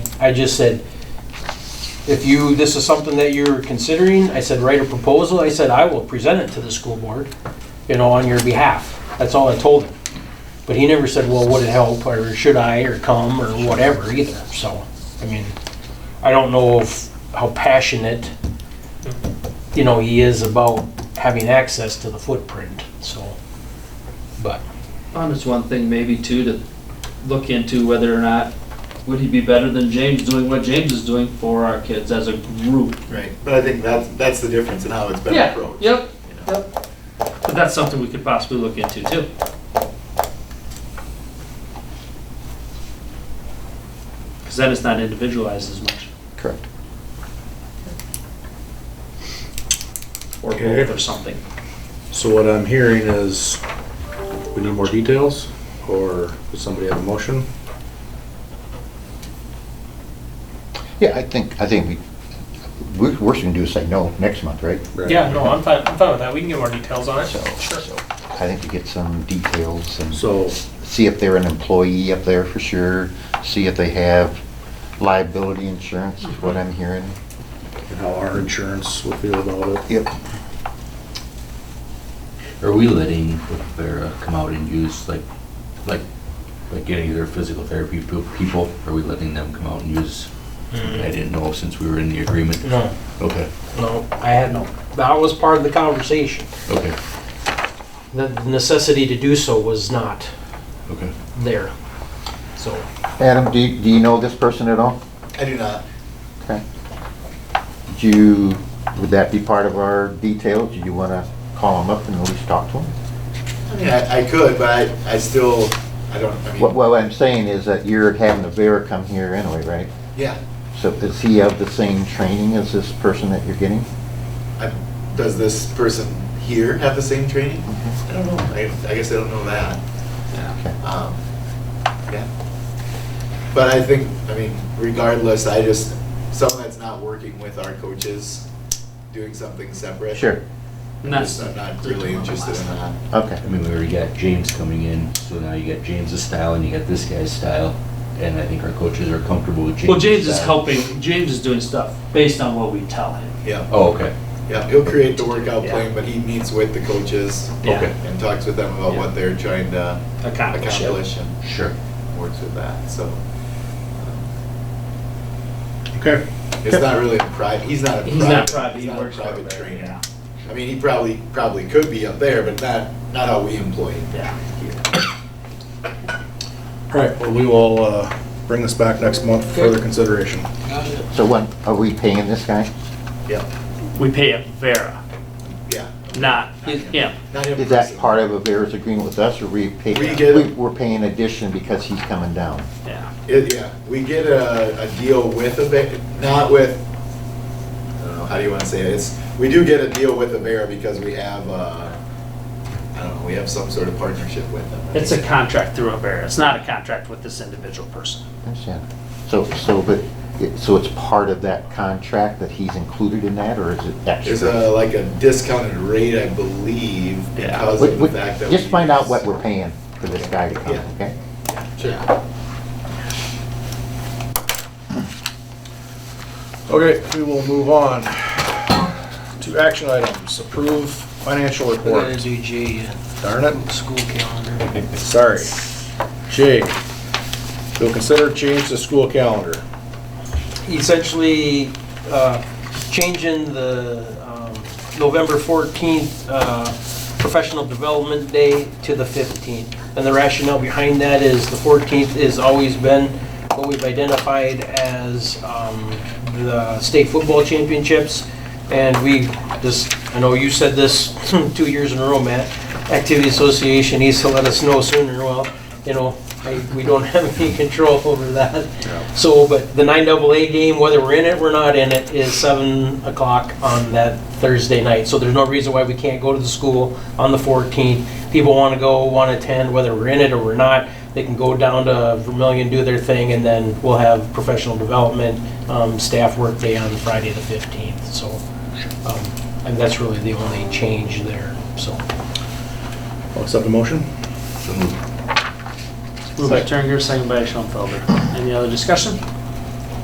I just said, if you, this is something that you're considering, I said, write a proposal, I said, I will present it to the school board, you know, on your behalf. That's all I told him. But he never said, well, would it help, or should I, or come, or whatever either, so, I mean, I don't know if, how passionate, you know, he is about having access to the footprint, so, but. Um, it's one thing maybe too to look into whether or not, would he be better than James doing what James is doing for our kids as a group? Right, but I think that's, that's the difference in how it's been Yeah, approached. Yep, yep. But that's something we could possibly look into too. Cause then it's not individualized as much, Correct. or Okay. both or something. So what I'm hearing is, we need more details, or does somebody have a motion? Yeah, I think, I think we, we- worst we can do is say no next month, right? Yeah, no, I'm fine, I'm fine with that, we can get more details on it. So, Sure. so I think to get some details and So, see if they're an employee up there for sure, see if they have liability insurance, is Mm-hmm. what I'm hearing. and how our insurance will feel about it. Yep. Are we letting Vera come out and use like, like, like any of their physical therapy pe- people? Are we letting them come out and use? Hmm. I didn't know since we were in the agreement. No, Okay, no, I had no, that was part of the conversation. okay, The necessity to do so was not okay. there, so. Adam, do you, do you know this person at all? I do not. Okay. Do you, would that be part of our details? Do you want to call him up and at least talk to him? I mean, I, I could, but I, I still, I don't, I What, mean, what I'm saying is that you're having a Vera come here anyway, right? yeah. So is he of the same training as this person that you're getting? I- Does this person here have the same training? Mm-hmm. I don't know. I, I guess I don't know that. Okay. Um, Yeah. But I think, I mean, regardless, I just, someone that's not working with our coaches, doing something separate. Sure, And Just, that's, I'm not really interested in that. okay. I mean, we already got James coming in, so now you got James's style and you got this guy's style. And I think our coaches are comfortable with James' well, James is style. helping, James is doing stuff based on what we tell him. Yeah, Oh, okay, yeah, he'll create the workout Yeah. plan, but he meets with the coaches Yeah. Ah, Okay. and talks with them about what they're trying to Accomplish it. accomplish and sure. works with that, so. um, Okay. It's not really a private, he's not a private. He's not private, he not a works for private Vera, trainer. yeah, I mean, he probably, probably could be up there, but not, not how we employ him. yeah. All right, well, we will uh, bring this back next month for further consideration. So what, are we paying this guy? Yeah, We pay a Vera, yeah. not him. Not him Is that personally. part of a Vera's agreement with us, or we pay? We get it. we- We're paying addition because he's coming down. Yeah. It- Yeah, we get a, a deal with a, Ve- not with, I don't know, how do you want to say it? It's, we do get a deal with Avera because we have, uh, I don't know, we have some sort of partnership with them. It's a contract through a Avera. It's not a contract with this individual person. Understand? So, so, but, it- so it's part of that contract that he's included in that, or is it There's extra? a, like a discounted rate, I believe, Yeah. because Wait, of the wait, fact that. Just we find out use- what we're paying for this guy to come, Yeah. okay? Sure. Okay, we will move on to action items. Approve financial report. Darn it. uh, school calendar. Sorry. J, we'll consider change the school calendar. Essentially, uh, changing the um, November 14th uh, Professional Development Day to the 15th. And the rationale behind that is the 14th has always been what we've identified as um, the state football championships. And we just, I know you said this two years in a row, Matt, Activity Association needs to let us know sooner, well, you know, I- we don't have any control over that. So, but the 9AA game, whether we're in it, we're not in it, is 7 o'clock on that Thursday night. So there's no reason why we can't go to the school on the 14th. People want to go, want to attend, whether we're in it or we're not, they can go down to Vermillion, do their thing, and then we'll have professional development, um, staff work day on Friday the 15th, so. um, And that's really the only change there, so. I'll accept a motion. So moved. Moved by Turner, second by Schoenfelder. Any other discussion?